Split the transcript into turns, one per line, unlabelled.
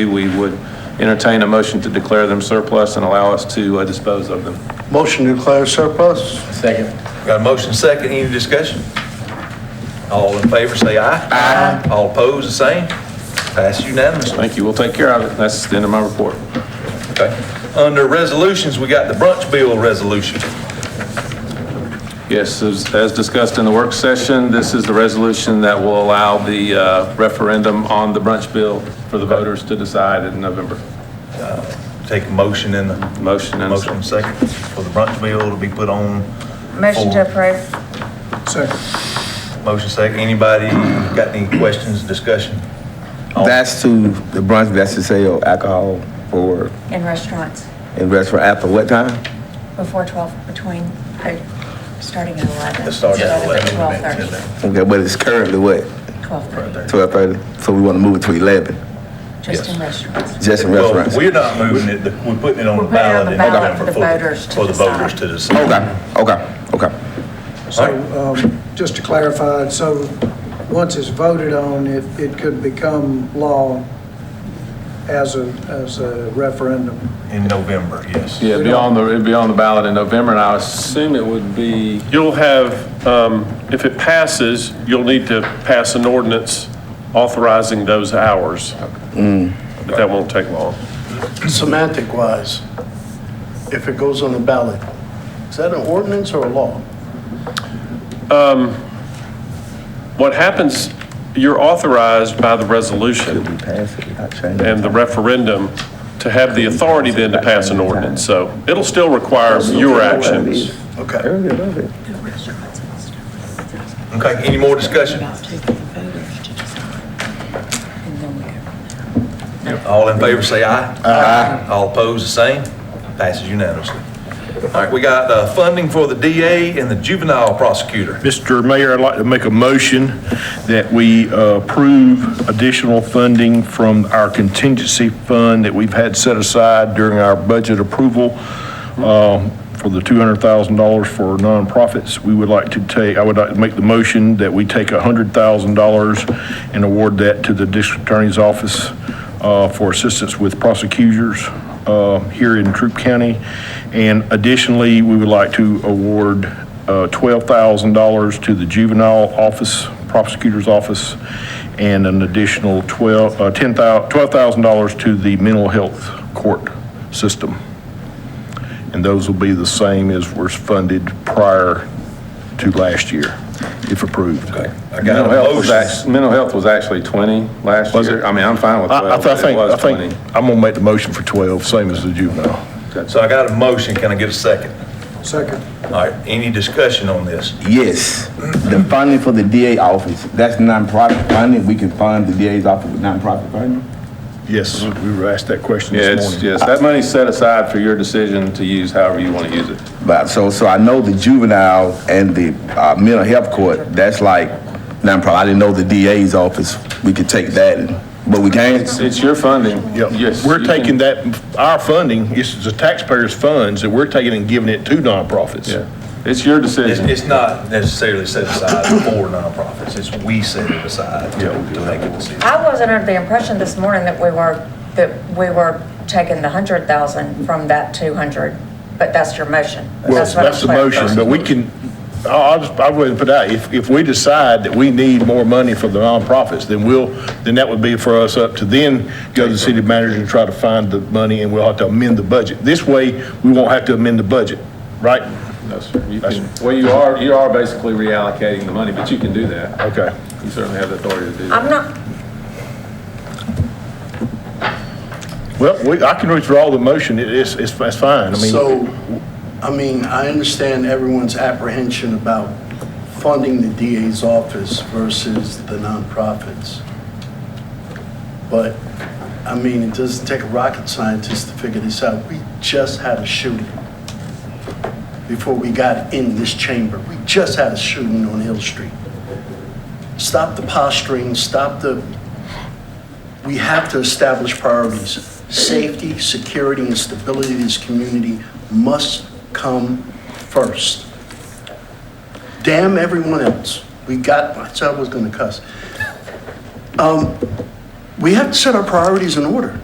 We would entertain a motion to declare them surplus and allow us to uh, dispose of them.
Motion to declare surplus?
Second. Got a motion second, any discussion? All in favor, say aye. Aye. All opposed, the same. Pass unanimously.
Thank you, we'll take care of it. That's the end of my report.
Okay. Under resolutions, we got the brunch bill resolution.
Yes, as as discussed in the work session, this is the resolution that will allow the uh, referendum on the brunch bill for the voters to decide in November.
Take a motion and the
Motion and a second.
motion second for the brunch bill to be put on.
Motion to approve.
Motion second. Anybody got any questions, discussion? All-
That's to the brunch, that's to sell alcohol for,
In restaurants,
in restaurant after what time?
before 12, between, uh, starting at 11.
Let's start at 11.
12:30,
Okay, but it's currently what,
12:30,
twelve thirty? So we want to move it to eleven,
just in
Yes.
restaurants.
just in
Well,
restaurants?
We're not moving it, The- we're putting it on
We're
the
putting it
ballot.
on the
in
ballot
November
for the voters to
For the voters
decide.
to decide.
Okay, okay, okay.
So, um, just to clarify, so once it's voted on, it, it could become law as a, as a referendum.
In November, yes.
Yeah, it'd be on the, it'd be on the ballot in November, and I assume it would be,
You'll have, um, if it passes, you'll need to pass an ordinance authorizing those hours. But that won't take long.
Semantic wise, if it goes on the ballot, is that an ordinance or a law?
What happens, you're authorized by the resolution
We pass it, I change it.
and the referendum to have the authority then to pass an ordinance. So it'll still require your actions.
Okay.
Earlier, love it.
Okay, any more discussion? All in favor, say aye. Aye. All opposed, the same. Passes unanimously. All right, we got uh, funding for the DA and the juvenile prosecutor.
Mr. Mayor, I'd like to make a motion that we uh, approve additional funding from our contingency fund that we've had set aside during our budget approval um, for the $200,000 for nonprofits. We would like to take, I would like to make the motion that we take $100,000 and award that to the district attorney's office uh, for assistance with prosecutors uh, here in Troop County. And additionally, we would like to award uh, $12,000 to the juvenile office, prosecutor's office, and an additional 12, uh, 10,000 $12,000 to the mental health court system. And those will be the same as was funded prior to last year, if approved.
I got
mental
a
health was,
motion.
act- mental health was actually 20 last
Was
year.
it?
I mean, I'm fine with
I-
12,
I, I
but it
think, I
was
think,
20.
I'm going to make the motion for 12, same as the juvenile.
So I got a motion, can I get a second?
Second.
All right, any discussion on this?
Yes, the funding for the DA office, that's nonprofit funding, we can fund the DA's office with nonprofit funding?
Yes, we were asked that question
Yeah,
this
it's,
morning.
yes, that money's set aside for your decision to use however you want to use it.
But, so, so I know the juvenile and the, uh, mental health court, that's like nonprofit, I didn't know the DA's office, we could take that, and- but we can't?
It's your funding. Yes.
Yep. We're
you can-
taking that, our funding, this is the taxpayers' funds, that we're taking and giving it to nonprofits.
Yeah, it's your
It's,
decision.
it's not necessarily set aside for nonprofits, it's we set it aside to to make a decision.
I wasn't under the impression this morning that we were, that we were taking the 100,000 from that 200, but that's your motion.
Well,
what I'm
that's the
clear.
motion, but we can, I'll, I'll just, I'll go ahead and put out, if, if we decide that we need more money for the nonprofits, then we'll, then that would be for us up to then go to the city manager and try to find the money, and we'll have to amend the budget. This way, we won't have to amend the budget, right?
No, sir. You can- Well, you are, you are basically reallocating the money, but you can do that.
Okay.
You certainly have the authority to do that.
I'm not,
Well, we, I can withdraw the motion, it is, it's, that's fine, I mean.
So, I mean, I understand everyone's apprehension about funding the DA's office versus the nonprofits. But, I mean, it doesn't take a rocket scientist to figure this out. We just had a shooting before we got in this chamber. We just had a shooting on Hill Street. Stop the posturing, stop the, we have to establish priorities. Safety, security, and stability of this community must come first. Damn everyone else. We got, I said I was gonna cuss. Um, we have to set our priorities in order.